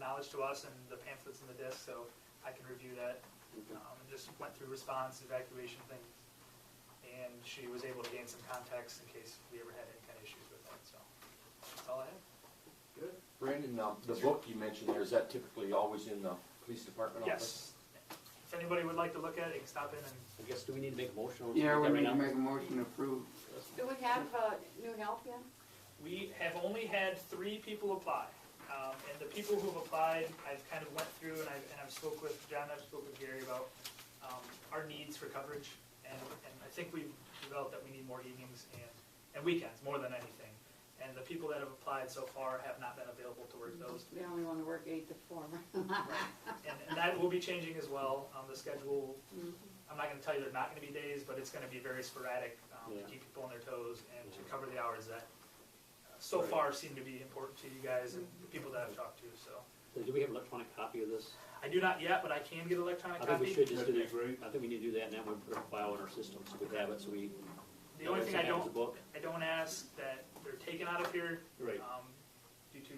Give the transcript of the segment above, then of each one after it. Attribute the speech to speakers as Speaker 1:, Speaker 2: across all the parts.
Speaker 1: knowledge to us and the pamphlets and the disc, so I can review that. Um, and just went through response, evacuation things, and she was able to gain some context in case we ever had any kind of issues with that, so. That's all I have.
Speaker 2: Good.
Speaker 3: Brandon, um, the book you mentioned there, is that typically always in the police department
Speaker 1: Yes.
Speaker 3: office?
Speaker 1: If anybody would like to look at it, you can stop in and
Speaker 4: I guess, do we need to make a motion? on that
Speaker 5: Yeah, we
Speaker 4: right
Speaker 5: need to
Speaker 4: now?
Speaker 5: make a motion to approve.
Speaker 6: Do we have, uh, new help yet?
Speaker 1: We have only had three people apply. Um, and the people who've applied, I've kind of went through and I've, and I've spoke with John, I've spoke with Gary about, um, our needs for coverage. And, and I think we've developed that we need more evenings and, and weekends more than anything. And the people that have applied so far have not been available to work those.
Speaker 6: We only wanna work eight to four.
Speaker 1: And, and that will be changing as well. Um, the schedule, I'm not gonna tell you they're not gonna be days, but it's gonna be very sporadic, um, to
Speaker 4: Yeah.
Speaker 1: keep people on their toes and to
Speaker 4: Yeah.
Speaker 1: cover the hours that uh, so
Speaker 4: Right.
Speaker 1: far seem to be important to you guys and the people that I've talked to, so.
Speaker 4: So Do we have an electronic copy of this?
Speaker 1: I do not yet, but I can get electronic
Speaker 4: I think we
Speaker 1: copy.
Speaker 4: should just do
Speaker 2: That'd be
Speaker 4: that.
Speaker 2: great.
Speaker 4: I think we need to do that, and then we put a file in our system, so we have it, so we.
Speaker 1: The only thing I
Speaker 4: Have the
Speaker 1: don't,
Speaker 4: book.
Speaker 1: I don't ask that they're taken out of here,
Speaker 4: Right.
Speaker 1: um, due to.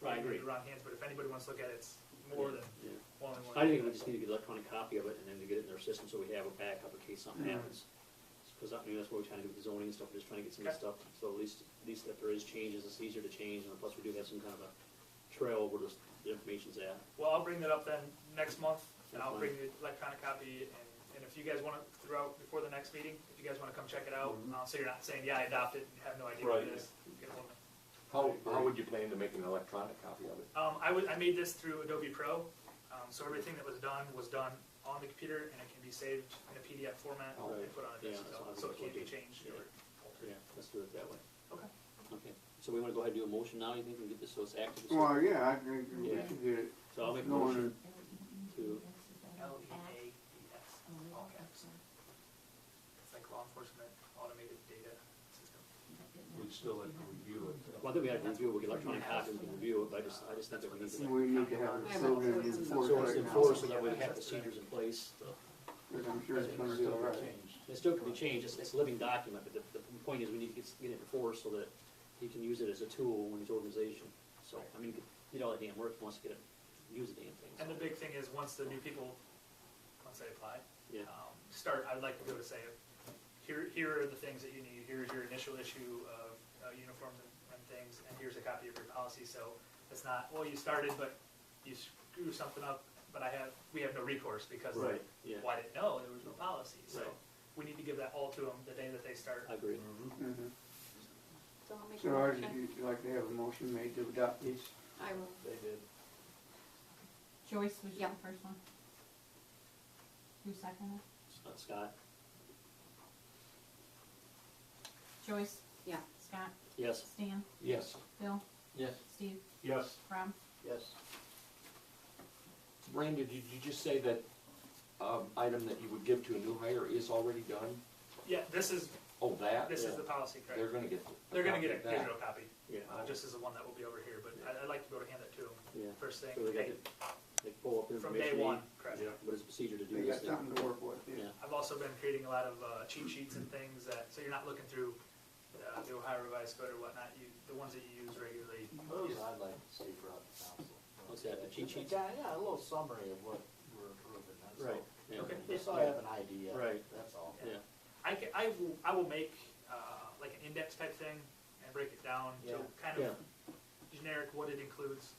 Speaker 4: Right, I agree.
Speaker 1: The wrong hands, but if anybody wants to look at it, it's more than
Speaker 4: Yeah.
Speaker 1: only one.
Speaker 4: I think we just need to get an electronic copy of it, and then to get it in our system, so we have a backup in case
Speaker 5: Hmm.
Speaker 4: something happens. Because I mean, that's what we're trying to do with the zoning and stuff, we're just trying to get some of this stuff, so at least, at least if there is changes, it's easier to change, and plus we do have some kind of a trail where this, the information's at.
Speaker 1: Well, I'll bring that up then next month, and I'll
Speaker 4: That's
Speaker 1: bring the electronic copy, and, and if you guys wanna, throughout, before the next meeting, if you guys wanna come check it out,
Speaker 4: Mm-hmm.
Speaker 1: uh, so you're not saying, yeah, I adopted, and have no idea what it
Speaker 3: Right.
Speaker 1: is. get a hold of me.
Speaker 3: How, how would you plan to make an electronic copy of it?
Speaker 1: Um, I would, I made this through Adobe Pro, um, so everything that was done was done on the computer, and it can be saved in a PDF format and
Speaker 4: Right.
Speaker 1: put on a
Speaker 4: Yeah,
Speaker 1: disk,
Speaker 4: that's
Speaker 1: so-
Speaker 4: what I
Speaker 1: so it
Speaker 4: think
Speaker 1: can't be
Speaker 4: we'll do.
Speaker 1: changed
Speaker 4: Yeah.
Speaker 1: or altered.
Speaker 4: Let's do it that way.
Speaker 1: Okay.
Speaker 4: Okay, so we wanna go ahead and do a motion now, you think we can get this, so it's active?
Speaker 5: Well, yeah, I think we
Speaker 4: Yeah.
Speaker 5: should get it.
Speaker 4: So I'll make a
Speaker 5: No,
Speaker 4: motion to,
Speaker 1: L E A D S, all caps. It's like law enforcement automated data system.
Speaker 2: We'd still like to review it.
Speaker 4: well, I think we have to review, it, we get electronic copy, and we can review it, but I just, I just think that we need to.
Speaker 5: We need to have it so that it's enforced
Speaker 4: So it's
Speaker 5: right
Speaker 4: enforced,
Speaker 5: now.
Speaker 4: so that we have procedures in place, the-
Speaker 5: But I'm sure it's gonna be all right.
Speaker 4: It still can be changed, it's, it's a living document, but the, the point is we need to get, get it enforced so that he can use it as a tool in his organization. So, I mean, you know, the damn work, he wants to get it, use the damn thing.
Speaker 1: And the big thing is, once the new people, once they apply,
Speaker 4: Yeah,
Speaker 1: um, start, I'd like to go to say, here, here are the things that you need, here's your initial issue of uh, uniforms and, and things, and here's a copy of your policy, so it's not, well, you started, but you screwed something up, but I have, we have no recourse because
Speaker 4: right, yeah,
Speaker 1: why didn't know, there was no policy, so
Speaker 4: Right.
Speaker 1: we need to give that all to them the day that they start.
Speaker 4: I agree.
Speaker 5: Mhm.
Speaker 6: So I'll make a
Speaker 5: So I'd
Speaker 6: motion.
Speaker 5: like to have a motion made to adopt these.
Speaker 6: I will.
Speaker 4: They did.
Speaker 7: Joyce was the
Speaker 6: Yeah.
Speaker 7: first one? Who seconded?
Speaker 4: Scott,
Speaker 7: Joyce?
Speaker 6: Yeah.
Speaker 7: Scott?
Speaker 4: yes?
Speaker 7: Stan?
Speaker 3: Yes.
Speaker 7: Bill?
Speaker 3: Yes.
Speaker 7: Steve?
Speaker 2: Yes,
Speaker 7: Rob?
Speaker 4: Yes.
Speaker 3: Brandon, did you just say that, um, item that you would give to a new hire is already done?
Speaker 1: Yeah, this is,
Speaker 3: Oh, that?
Speaker 1: this is
Speaker 4: Yeah.
Speaker 1: the policy,
Speaker 3: They're
Speaker 1: correct?
Speaker 3: gonna get.
Speaker 1: They're gonna get a
Speaker 3: copy of that.
Speaker 1: digital copy,
Speaker 4: Yeah,
Speaker 1: uh, just as the one that will be over here, but I, I'd like to go to hand it to them,
Speaker 4: yeah.
Speaker 1: first thing,
Speaker 4: So they got
Speaker 1: hey,
Speaker 4: to, they pull up the
Speaker 1: from
Speaker 4: information.
Speaker 1: day
Speaker 4: they need,
Speaker 1: one, correct?
Speaker 2: yeah.
Speaker 4: What is the procedure to
Speaker 5: They
Speaker 4: do this
Speaker 5: got
Speaker 4: thing?
Speaker 5: something to work with, yeah.
Speaker 4: Yeah.
Speaker 1: I've also been creating a lot of uh, cheat sheets and things that, so you're not looking through uh, the Ohio Revised Code or whatnot, you, the ones that you use regularly.
Speaker 8: Those I'd like to see brought to council.
Speaker 4: What's that, the cheat sheets?
Speaker 8: Yeah, yeah, a little summary of what we're approving, that's all.
Speaker 4: Right, yeah,
Speaker 1: Okay.
Speaker 8: Just so I have an idea.
Speaker 4: Right.
Speaker 8: That's all.
Speaker 4: yeah,
Speaker 1: I can, I will, I will make uh, like an index type thing and break it down to
Speaker 8: Yeah.
Speaker 1: kind
Speaker 4: yeah,
Speaker 1: of generic what it includes.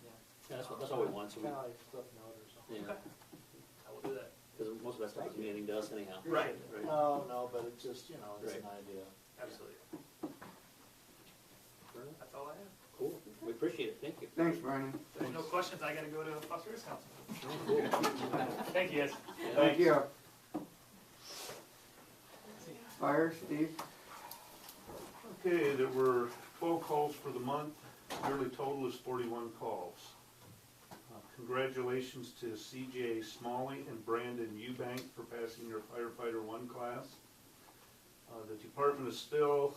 Speaker 4: that's what, that's all we want, so
Speaker 8: It's
Speaker 4: we,
Speaker 8: kinda like footnote or something.
Speaker 4: yeah,
Speaker 1: I will do that.
Speaker 4: because most of that stuff is meaning to us anyhow.
Speaker 1: Right.
Speaker 4: Right.
Speaker 8: No, Oh, no, but it's just, you know, it's an idea.
Speaker 1: Absolutely. That's all I have.
Speaker 4: Cool, we appreciate it, thank you.
Speaker 5: Thanks, Brandon.
Speaker 1: If there's no questions, I gotta go to Fox Roots Council. Thank you guys.
Speaker 5: Thank you. Fire, Steve?
Speaker 2: okay, there were twelve calls for the month, yearly total is forty-one calls. Uh, Congratulations to CJ Smalley and Brandon Eubank for passing your firefighter one class. Uh, the department is still,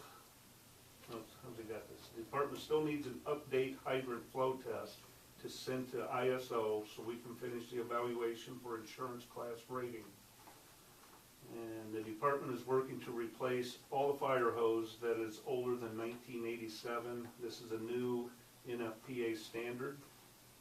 Speaker 2: no, how's it got this, the department still needs an update hybrid flow test to send to ISO so we can finish the evaluation for insurance class rating. And the department is working to replace all the fire hose that is older than nineteen eighty-seven. This is a new NFPA standard.